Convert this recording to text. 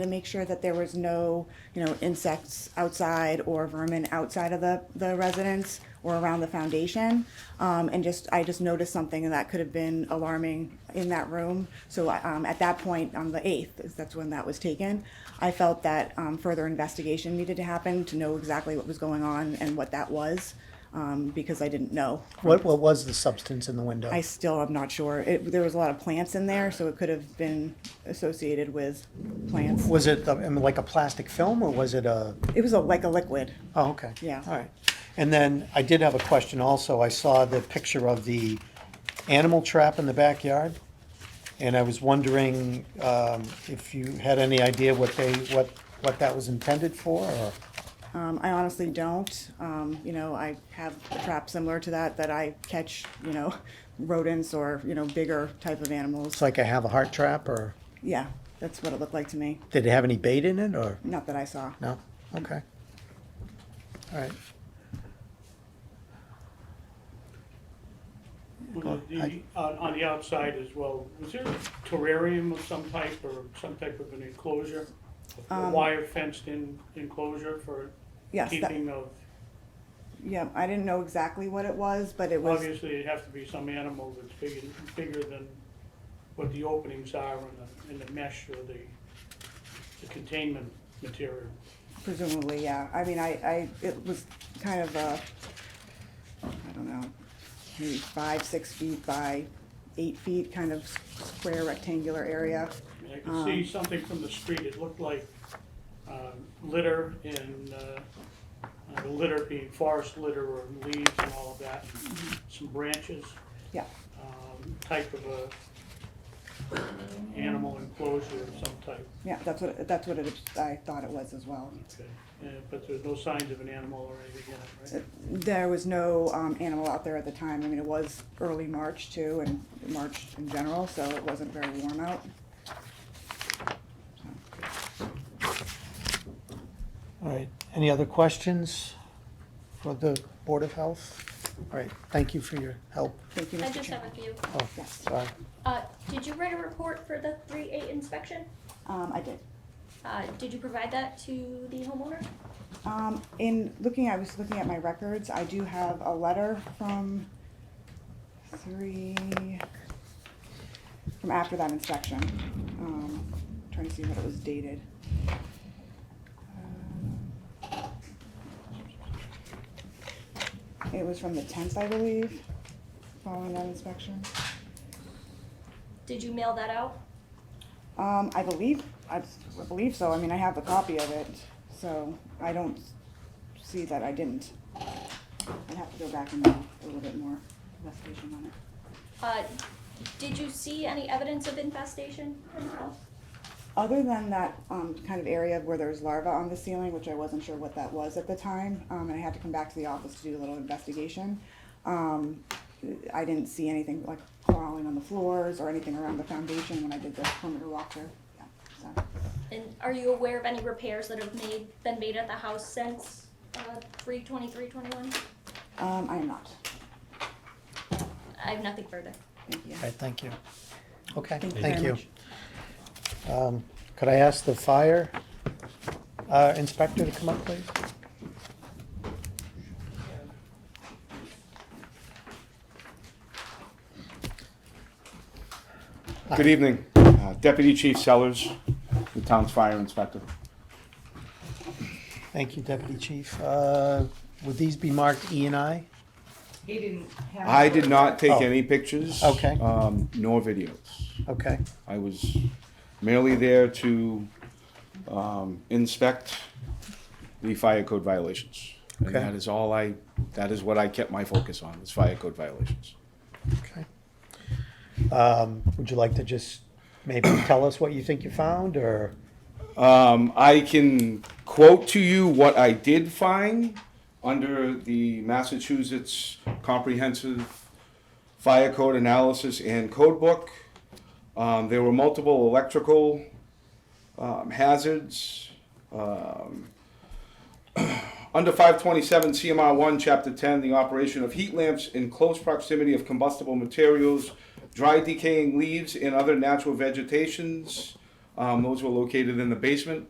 to make sure that there was no, you know, insects outside or vermin outside of the, the residence or around the foundation. Um, and just, I just noticed something and that could have been alarming in that room. So, I- um, at that point, on the eighth, is- that's when that was taken, I felt that, um, further investigation needed to happen to know exactly what was going on and what that was, um, because I didn't know. What, what was the substance in the window? I still am not sure. It, there was a lot of plants in there, so it could have been associated with plants. Was it, uh, I mean, like a plastic film or was it a, It was a, like a liquid. oh, okay. Yeah. All right. And then I did have a question also. I saw the picture of the animal trap in the backyard. And I was wondering, um, if you had any idea what they, what, what that was intended for or? Um, I honestly don't. Um, you know, I have a trap similar to that that I catch, you know, rodents or, you know, bigger type of It's animals. like a have a heart trap or Yeah, that's what it looked like to me. did it have any bait in it or? Not that I saw. No? Okay. All right. On the, on on the outside as well, was there a terrarium of some type or some type of an enclosure? A wire fenced in enclosure for Um, Yes, that, keeping of, yeah, I didn't know exactly what it was, but it was, obviously it'd have to be some animal that's bigger, bigger than what the openings are in the, in the mesh or the, the containment material. presumably, yeah. I mean, I, I, it was kind of a, I don't know, maybe five, six feet by eight feet, kind of square rectangular area. I mean, I could see something from the street, it looked like uh, litter and, uh, uh, the litter being forest litter or leaves and all of that, some branches, Yeah, um, type of a uh, animal enclosure of some type. yeah, that's what, that's what it, I thought it was as well. Okay. Yeah, Uh, But there's no signs of an animal or anything in it, right? There was no um, animal out there at the time. I mean, it was early March too, and March in general, so it wasn't very warm out. All right, any other questions for the Board of Health? All right, thank you for your help. Thank you, I Mr. just have Chair. a few. Oh, Yes. sorry. Uh, did you write a report for the three eight inspection? Um, I did. Uh, did you provide that to the homeowner? Um, in looking, I was looking at my records. I do have a letter from three, from after that inspection. Um, trying to see what it was dated. Um, It was from the tenth, I believe, following that inspection. Did you mail that out? Um, I believe, I I believe so. I mean, I have a copy of it, so I don't see that I didn't. I'd have to go back and do a little bit more investigation on it. Uh, did you see any evidence of infestation? Other than that, um, kind of area where there's larva on the ceiling, which I wasn't sure what that was at the time, um, and I had to come back to the office to do a little investigation. Um, I didn't see anything like crawling on the floors or anything around the foundation when I did the perimeter walkthrough, yeah, so. And are you aware of any repairs that have made, been made at the house since, uh, three twenty-three twenty-one? Um, I am not, I have nothing further. thank you. All right, thank you. Okay, Thank you thank very you. much. Um, Could I ask the fire uh, inspector to come up, please? Good evening, Uh, Deputy Chief Sellers, the town's fire inspector. Thank you, Deputy Chief. Uh, Would these be marked E and I? He didn't have. I did not take Oh. any pictures. Okay. um, Nor videos. Okay, I was merely there to um, inspect the fire code violations. And Okay. that is all I, that is what I kept my focus on, is fire code violations. okay. Um, Would you like to just maybe tell us what you think you found, or? Um, I can quote to you what I did find under the Massachusetts Comprehensive Fire Code Analysis and Code Book. Um, there were multiple electrical um, hazards. Um, under 527 CMR 1, Chapter 10, the operation of heat lamps in close proximity of combustible materials, dry decaying leaves, and other natural vegetations. Um, Um, those were located in the basement.